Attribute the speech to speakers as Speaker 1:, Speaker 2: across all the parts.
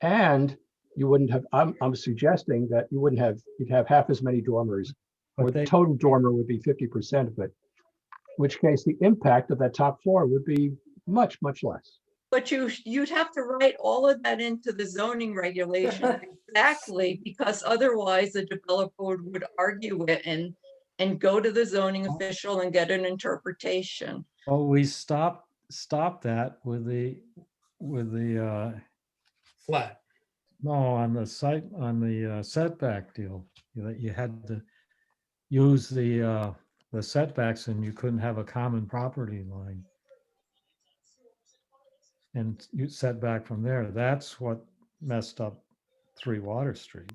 Speaker 1: And you wouldn't have, I'm, I'm suggesting that you wouldn't have, you'd have half as many dormers, or
Speaker 2: But
Speaker 1: the
Speaker 2: they,
Speaker 1: total dormer would be fifty percent of it. Which case the impact of that top floor would be much, much less.
Speaker 3: But you, sh- you'd have to write all of that into the zoning regulation exactly, because otherwise the developer would would argue it and, and go to the zoning official and get an interpretation.
Speaker 2: well, we stopped, stopped that with the, with the, uh,
Speaker 4: flat.
Speaker 2: no, on the site, on the uh, setback deal. You know, you had to use the, uh, the setbacks and you couldn't have a common property line. And you set back from there. That's what messed up Three Water Street.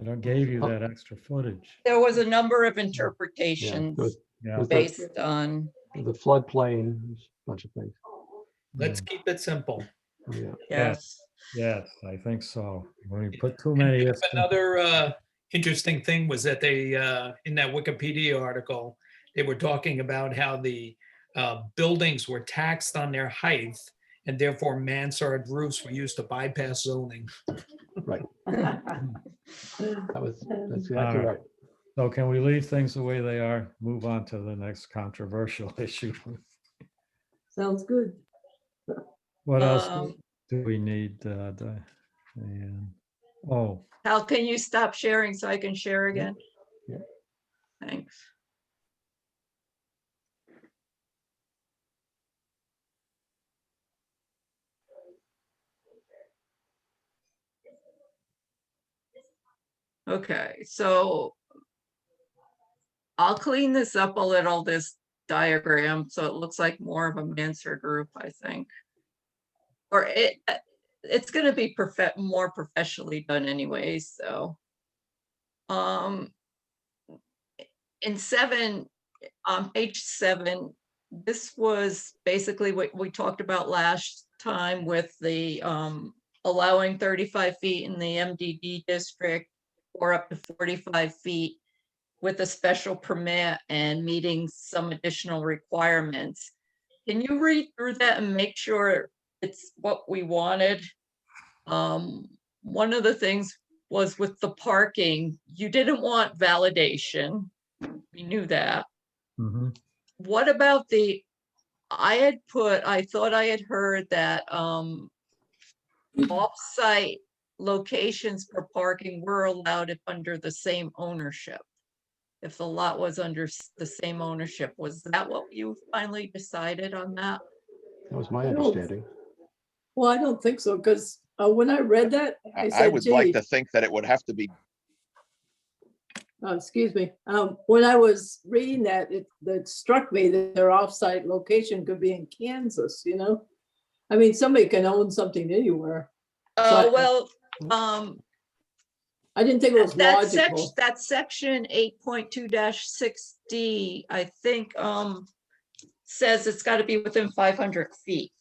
Speaker 2: And it gave you
Speaker 1: Oh.
Speaker 2: that extra footage.
Speaker 3: There was a number of
Speaker 1: Yeah,
Speaker 3: interpretations
Speaker 1: The
Speaker 2: Yeah.
Speaker 1: With the-
Speaker 3: based on,
Speaker 1: the floodplain, there's a bunch of things. Oh,
Speaker 4: Let's
Speaker 2: yeah.
Speaker 4: keep it simple.
Speaker 1: Yeah.
Speaker 3: yes.
Speaker 2: Yes, I think so. When you
Speaker 4: Yeah,
Speaker 2: put too many. ifs in-
Speaker 4: Another uh, interesting thing was that they, uh, in that Wikipedia article, they were talking about how the uh, buildings were taxed on their height and therefore mansard roofs were used to bypass zoning.
Speaker 1: That was, that's exactly
Speaker 2: Alright.
Speaker 1: right.
Speaker 2: So can we leave things the way they are? Move on to the next controversial issue.
Speaker 5: Sounds good.
Speaker 2: What else do-
Speaker 3: Um,
Speaker 2: do we need? uh, the- and- Oh,
Speaker 3: How can you stop sharing so I can share again?
Speaker 1: Yeah.
Speaker 3: Thanks. Okay, so I'll clean this up a little, this diagram, so it looks like more of a Mansard group, I think. Or it, it's gonna be profe- more professionally done anyway, so. Um. In seven, on page seven, this was basically what we talked about last time with the um. Allowing thirty-five feet in the MDD district or up to forty-five feet. With a special permit and meeting some additional requirements. Can you read through that and make sure it's what we wanted. Um, one of the things was with the parking, you didn't want validation. We knew that.
Speaker 2: mhm.
Speaker 3: What about the, I had put, I thought I had heard that, um, off-site locations for parking were allowed if under the same ownership. If the lot was under s- the same ownership, was that what you finally decided on that?
Speaker 1: That was my
Speaker 5: No.
Speaker 1: understanding.
Speaker 5: Well, I don't think so, because when I read that, I
Speaker 6: I, I
Speaker 5: said,
Speaker 6: would like
Speaker 5: "Gee."
Speaker 6: to think that it would have to be,
Speaker 5: oh, excuse me, um, when I was reading that, it, that struck me that their offsite location could be in Kansas, you know? I mean, somebody can own something anywhere.
Speaker 3: Uh,
Speaker 5: I-
Speaker 3: well, um,
Speaker 5: I didn't think it was
Speaker 3: That section,
Speaker 5: logical.
Speaker 3: that section eight point two six D, I think, um, says it's gotta be within five hundred feet.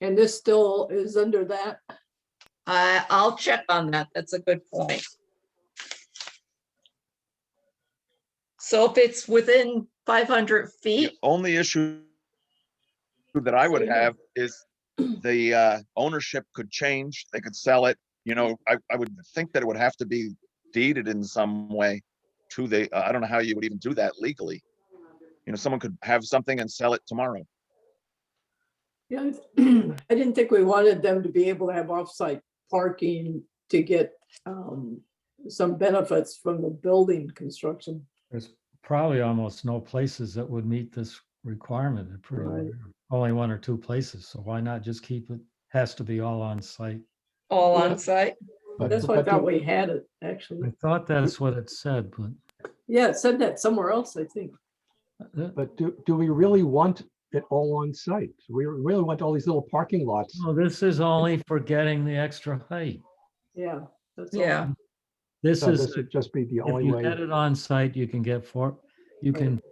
Speaker 5: And this still is under that.
Speaker 3: I, I'll check on that. That's a good point. So if it's within five hundred
Speaker 6: the
Speaker 5: E
Speaker 3: feet,
Speaker 6: only issue that I would have is the uh, ownership could change, they could sell it, you know, I, I would think that it would have to be deeded in some way to the, uh, I don't know how you would even do that legally. You know, someone could have something and sell it tomorrow.
Speaker 5: Yeah, I didn't think we wanted them to be able to have offsite parking to get, um, some benefits from the building construction.
Speaker 2: There's probably almost no places that would meet this requirement. It pretty
Speaker 5: Right.
Speaker 2: rare. Only one or two places, so why not just keep it? Has to be all on site.
Speaker 3: all
Speaker 5: Yeah.
Speaker 3: on site,
Speaker 1: But-
Speaker 5: That's why I
Speaker 1: but the-
Speaker 5: thought we had it,
Speaker 2: I
Speaker 5: actually.
Speaker 2: thought that's what it said, but
Speaker 5: Yeah, it said that somewhere else, I think.
Speaker 2: uh,
Speaker 1: But do, do we really want it all on site? Do We really want all these little parking lots?
Speaker 2: no, this is only for getting the extra height.
Speaker 5: Yeah. that's all.
Speaker 3: yeah.
Speaker 2: This
Speaker 1: So
Speaker 2: is
Speaker 1: this would just be the
Speaker 2: If
Speaker 1: only
Speaker 2: you
Speaker 1: way.
Speaker 2: get it on site, you can get four, you
Speaker 5: Right.
Speaker 2: can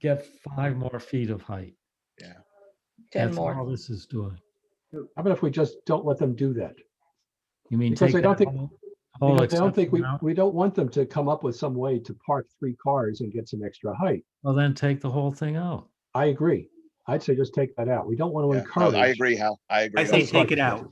Speaker 2: get five more feet of height.
Speaker 3: 10
Speaker 2: That's all
Speaker 3: more.
Speaker 2: this is doing.
Speaker 1: How about if we just don't let them do that?
Speaker 2: You mean
Speaker 1: Because
Speaker 2: take
Speaker 1: I don't
Speaker 2: that
Speaker 1: think-
Speaker 2: whole- whole
Speaker 1: Because I don't think
Speaker 2: exception
Speaker 1: we,
Speaker 2: out?
Speaker 1: we don't want them to come up with some way to park three cars and get some extra height.
Speaker 2: Well, then take the whole thing out.
Speaker 1: I agree. I'd say just take that out. We don't want to
Speaker 6: Yeah, no, I
Speaker 1: encourage.
Speaker 6: agree, Hal, I agree.
Speaker 7: I say
Speaker 1: That's what
Speaker 7: take it
Speaker 1: I-
Speaker 7: out.